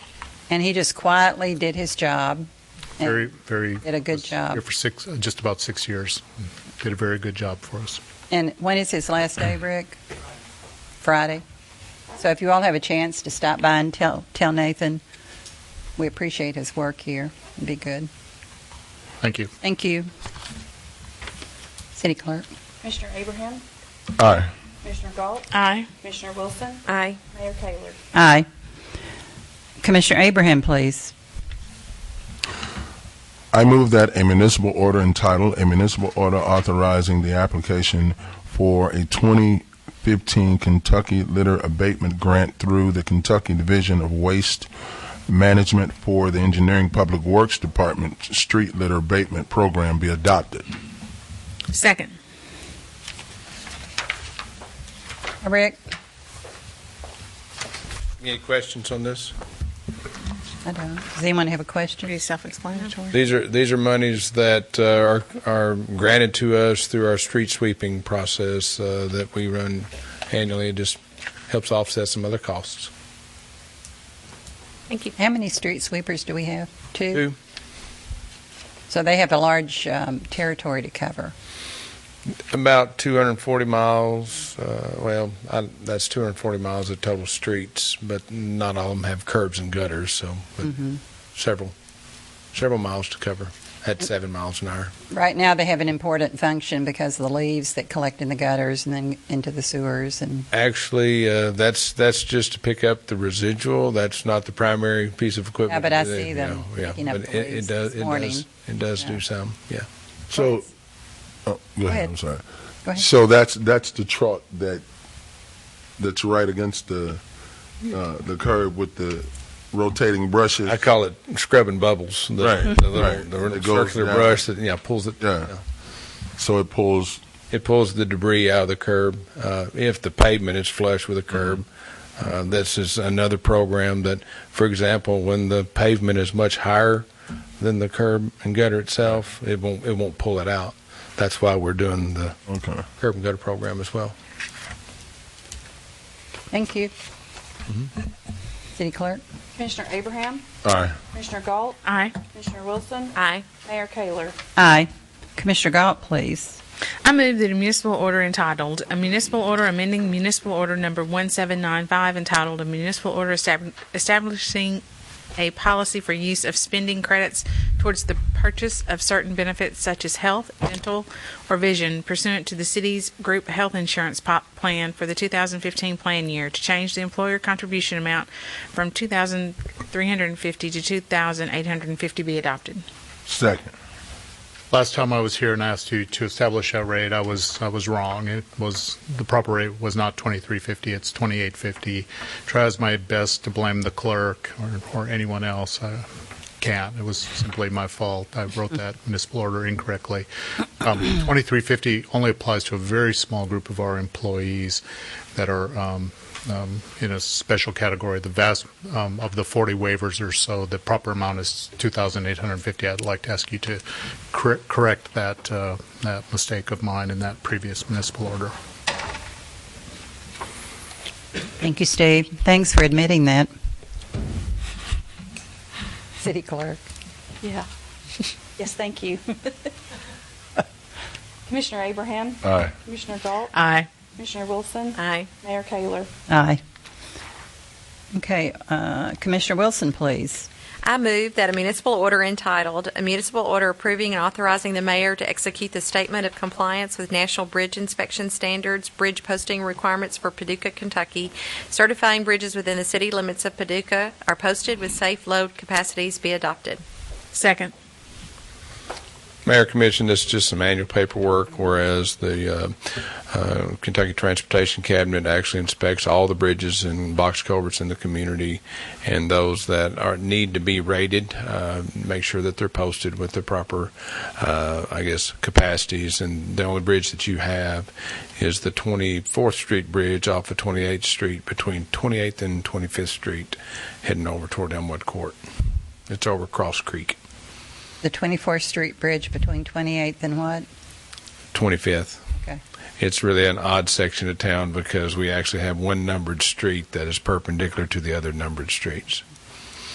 And he just quietly did his job. and Very, very. Did a good was job. Here for six, uh, just about six years. Did a very good job for us. And when is his last day, Rick? Friday. So if you all have a chance to stop by and tell, tell Nathan, we appreciate his work here. It'd be good. Thank you. Thank you. City Clerk. Commissioner Abraham? Aye. Commissioner Galt? Aye. Commissioner Wilson? Aye. Mayor Taylor? Aye. Commissioner Abraham, please. I move that a municipal order entitled, "A Municipal Order Authorizing the Application for a 2015 Kentucky Litter Abatement Grant Through the Kentucky Division of Waste Management for the Engineering Public Works Department Street Litter Abatement Program" be adopted. Second. Rick? Any questions on this? I don't. Does anyone have a question? Pretty self-explanatory. These are, these are monies that uh, are, are granted to us through our street sweeping process uh, that we run annually. It just helps offset some other costs. Thank you. How many street sweepers do we have? Two? Two. So they have a large um, territory to cover. About 240 miles, uh, well, I- that's 240 miles of total streets, but not all of them have curbs and gutters, so, but Mm-hmm. several, several miles to cover at seven miles an hour. Right now, they have an important function because of the leaves that collect in the gutters and then into the sewers and Actually, uh, that's that's just to pick up the residual. That's not the primary piece of equipment. Yeah, but I that- see them yeah, yeah. picking up But the it- it leaves does- this it does- morning. It does Yeah. do some, yeah. So, oh, ahead. go ahead, I'm sorry. Go ahead. So that's, that's the truck that, that's right against the, uh, the curb with the rotating brushes. I call it scrubbing bubbles. The, Right, the little right. the It goes circular down. brush that yeah pulls it. Yeah. So it pulls It pulls the debris out of the curb uh, if the pavement is flush with the Mm-hmm. curb. Uh, this is another program that, for example, when the pavement is much higher than the curb and gutter itself, it won't it won't pull it out. That's why we're doing the Okay. curb and gutter program as well. Thank you. City Clerk? Commissioner Abraham? All right. Commissioner Galt? Aye. Commissioner Wilson? Aye. Mayor Taylor? Aye. Commissioner Galt, please. I move that a municipal order entitled, "A Municipal Order Amending Municipal Order Number 1795 entitled, "A Municipal Order Estab- Establishing a Policy for Use of Spending Credits Towards the Purchase of Certain Benefits Such as Health, Dental, or Vision Pursuant to the City's Group Health Insurance Pop Plan for the 2015 Plan Year to Change the Employer Contribution Amount from 2350 to 2850 be adopted." Second. Last time I was here and asked you to establish that rate, I was, I was wrong. It was, the proper rate was not 2350, it's 2850. Tries my best to blame the clerk or, or anyone else. I can't. It was simply my fault. I wrote that municipal order incorrectly. Um, 2350 only applies to a very small group of our employees that are, um, um, in a special category. The vast, um, of the 40 waivers or so, the proper amount is 2,850. I'd like to ask you to cor- correct that, uh, that mistake of mine in that previous municipal order. Thank you, Steve. Thanks for admitting that. City Clerk? Yeah. Yes, thank you. Commissioner Abraham? Aye. Commissioner Galt? Aye. Commissioner Wilson? Aye. Mayor Taylor? Aye. Okay, uh, Commissioner Wilson, please. I move that a municipal order entitled, "A Municipal Order Approving and Authorizing the Mayor to Execute the Statement of Compliance with National Bridge Inspection Standards, Bridge Posting Requirements for Paducah, Kentucky, Certifying Bridges Within the City Limits of Paducah Are Posted with Safe Load Capacities," be adopted. Second. Mayor Commission, this is just some annual paperwork, whereas the uh, uh, Kentucky Transportation Cabinet actually inspects all the bridges and box culverts in the community, and those that are, need to be rated, uh, make sure that they're posted with the proper, uh, I guess, capacities. And the only bridge that you have is the 24th Street Bridge off of 28th Street between 28th and 25th Street, heading over toward Elmwood Court. It's over Cross Creek, The 24th Street Bridge between 28th and what? 25th. Okay. it's really an odd section of town because we actually have one numbered street that is perpendicular to the other numbered streets.